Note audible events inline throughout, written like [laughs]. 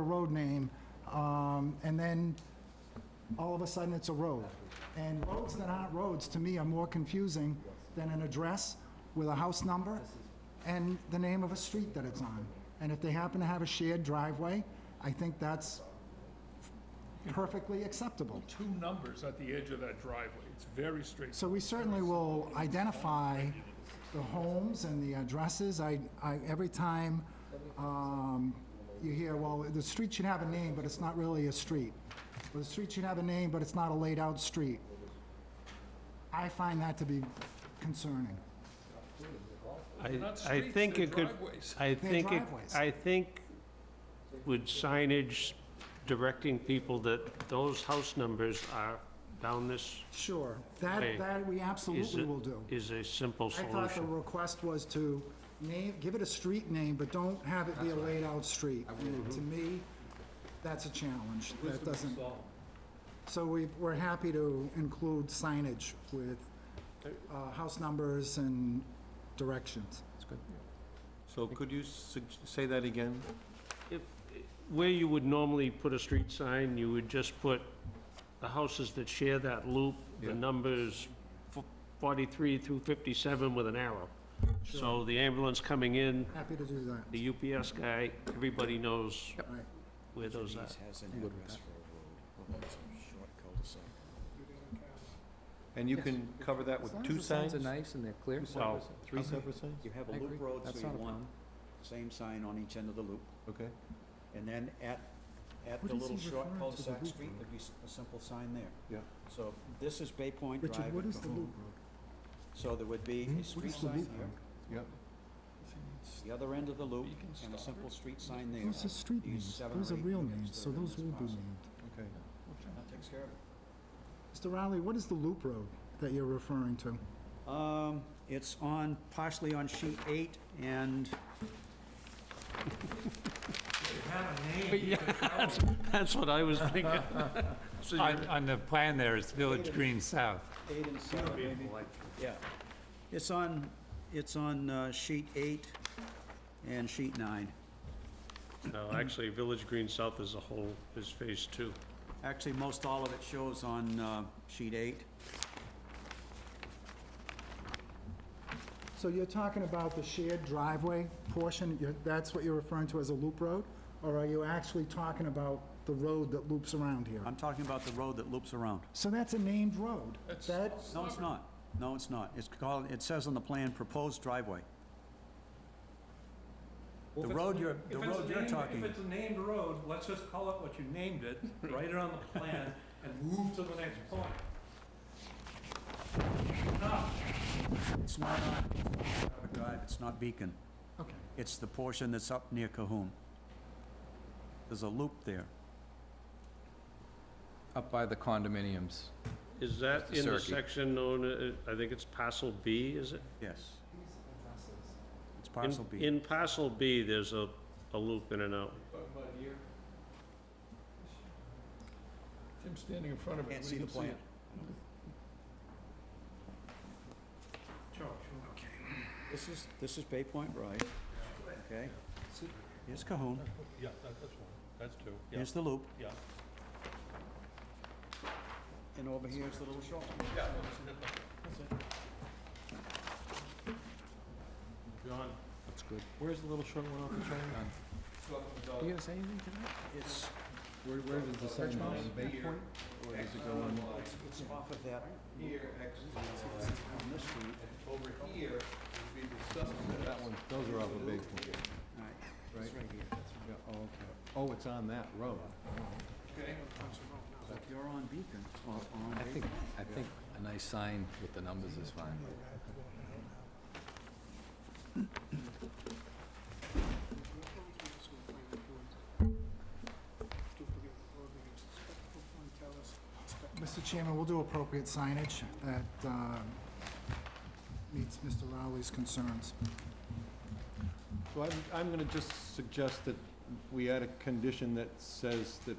road name, um, and then all of a sudden it's a road. And roads that aren't roads, to me, are more confusing than an address with a house number and the name of a street that it's on. And if they happen to have a shared driveway, I think that's perfectly acceptable. two numbers at the edge of that driveway. It's very straight. So we certainly will identify the homes and the addresses. I, I, every time, um, you hear, well, the street should have a name, but it's not really a street. Or the street should have a name, but it's not a laid-out street. I find that to be concerning. I, not I streets, think they're it could, driveways. I think, it- driveways. I think with signage directing people that those house numbers are down this Sure, that, Hey, that we is, absolutely a- will do. is a simple I thought the solution. request was to name, give it a street name, but don't have it be a laid-out street. And To me, that's a challenge. That doesn't... So we, we're happy to include signage with uh, house numbers and directions. So could you sug- say that again? If- Where you would normally put a street sign, you would just put the houses that share that loop, the Yeah. numbers f- 43 through 57 with an arrow. So the ambulance coming in, Happy to do that. the UPS guy, everybody knows All right. where those are. Denise has an address for a road, well, that's a short cul-de-sac. And you Yes. can cover that As long as with two the signs? Signs are nice and they're clear. Two Well, separate, si- three okay. separate signs? You have a I loop agree. road, so That's you not a want problem. same sign on each end of the loop, Okay. and then at, at What the is little he short referring to, the cul-de-sac loop street, road? there'd be s- a simple sign there. Yeah. So this is Bay Point Drive. Richard, what at is the loop Cahoon. So there would be road? a What street is the sign loop here, road? the other end of the loop, You can and a stop simple it. street sign there. Those are street These names. seven Those or are eight real units names, that so are in those this will be parcel. named. Okay. That takes care of it. Mr. Rowley, what is the loop road that you're referring to? Um, it's on, partially on sheet eight, and That's what I was thinking. [laughs] So On, you're- on the plan there, it's Village Green South. Eight and seven, maybe? Yeah. It's on, it's on uh, sheet eight and sheet nine. No, actually, Village Green South as a whole is Phase Two. Actually, most all of it shows on uh, sheet eight. So you're talking about the shared driveway portion, you're- that's what you're referring to as a loop road? Or are you actually talking about the road that loops around here? I'm talking about the road that loops around. So that's a named road. That, No, it's not. No, it's not. It's called, it says on the plan, proposed driveway. The road you're, the road you're talking, If it's a named road, let's just call it what you [laughs] named it, write it on the plan, and move to the next point. it's not on Harbor Drive, it's not Beacon. okay. It's the portion that's up near Cahoon. There's a loop there. Up by the condominiums. Is that Mr. in the Cirque. section known, uh, I think it's parcel B, is it? Yes. It's In- parcel B. In parcel B, there's a, a loop in and out. Tim's standing in front of it. Can't We see the it. plan. Sure, This is, this is Bay Point Drive, okay? Here's Cahoon, Yeah, that's one. That's two. here's the loop, yeah. and over here is the little shop. John? That's good. Where's the little short one off the triangle? You gonna say anything to that? It's, Where, where does the sign go? Bay Point? Or does it go um, on? it's off of that. Here, On this street. That one, those are off of Bay Point. All right, it's right here. Yeah, Oh, okay. Oh, it's on that road. So if you're on Beacon, or on I Bay- think, I think a nice sign with the numbers is fine. Mr. Chairman, we'll do appropriate signage that uh, meets Mr. Rowley's concerns. So I'm, I'm gonna just suggest that we add a condition that says that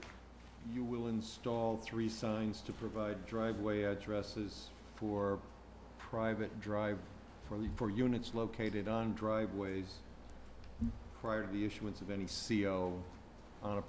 you will install three signs to provide driveway addresses for private drive, for, for units located on driveways prior to the issuance of any CO on a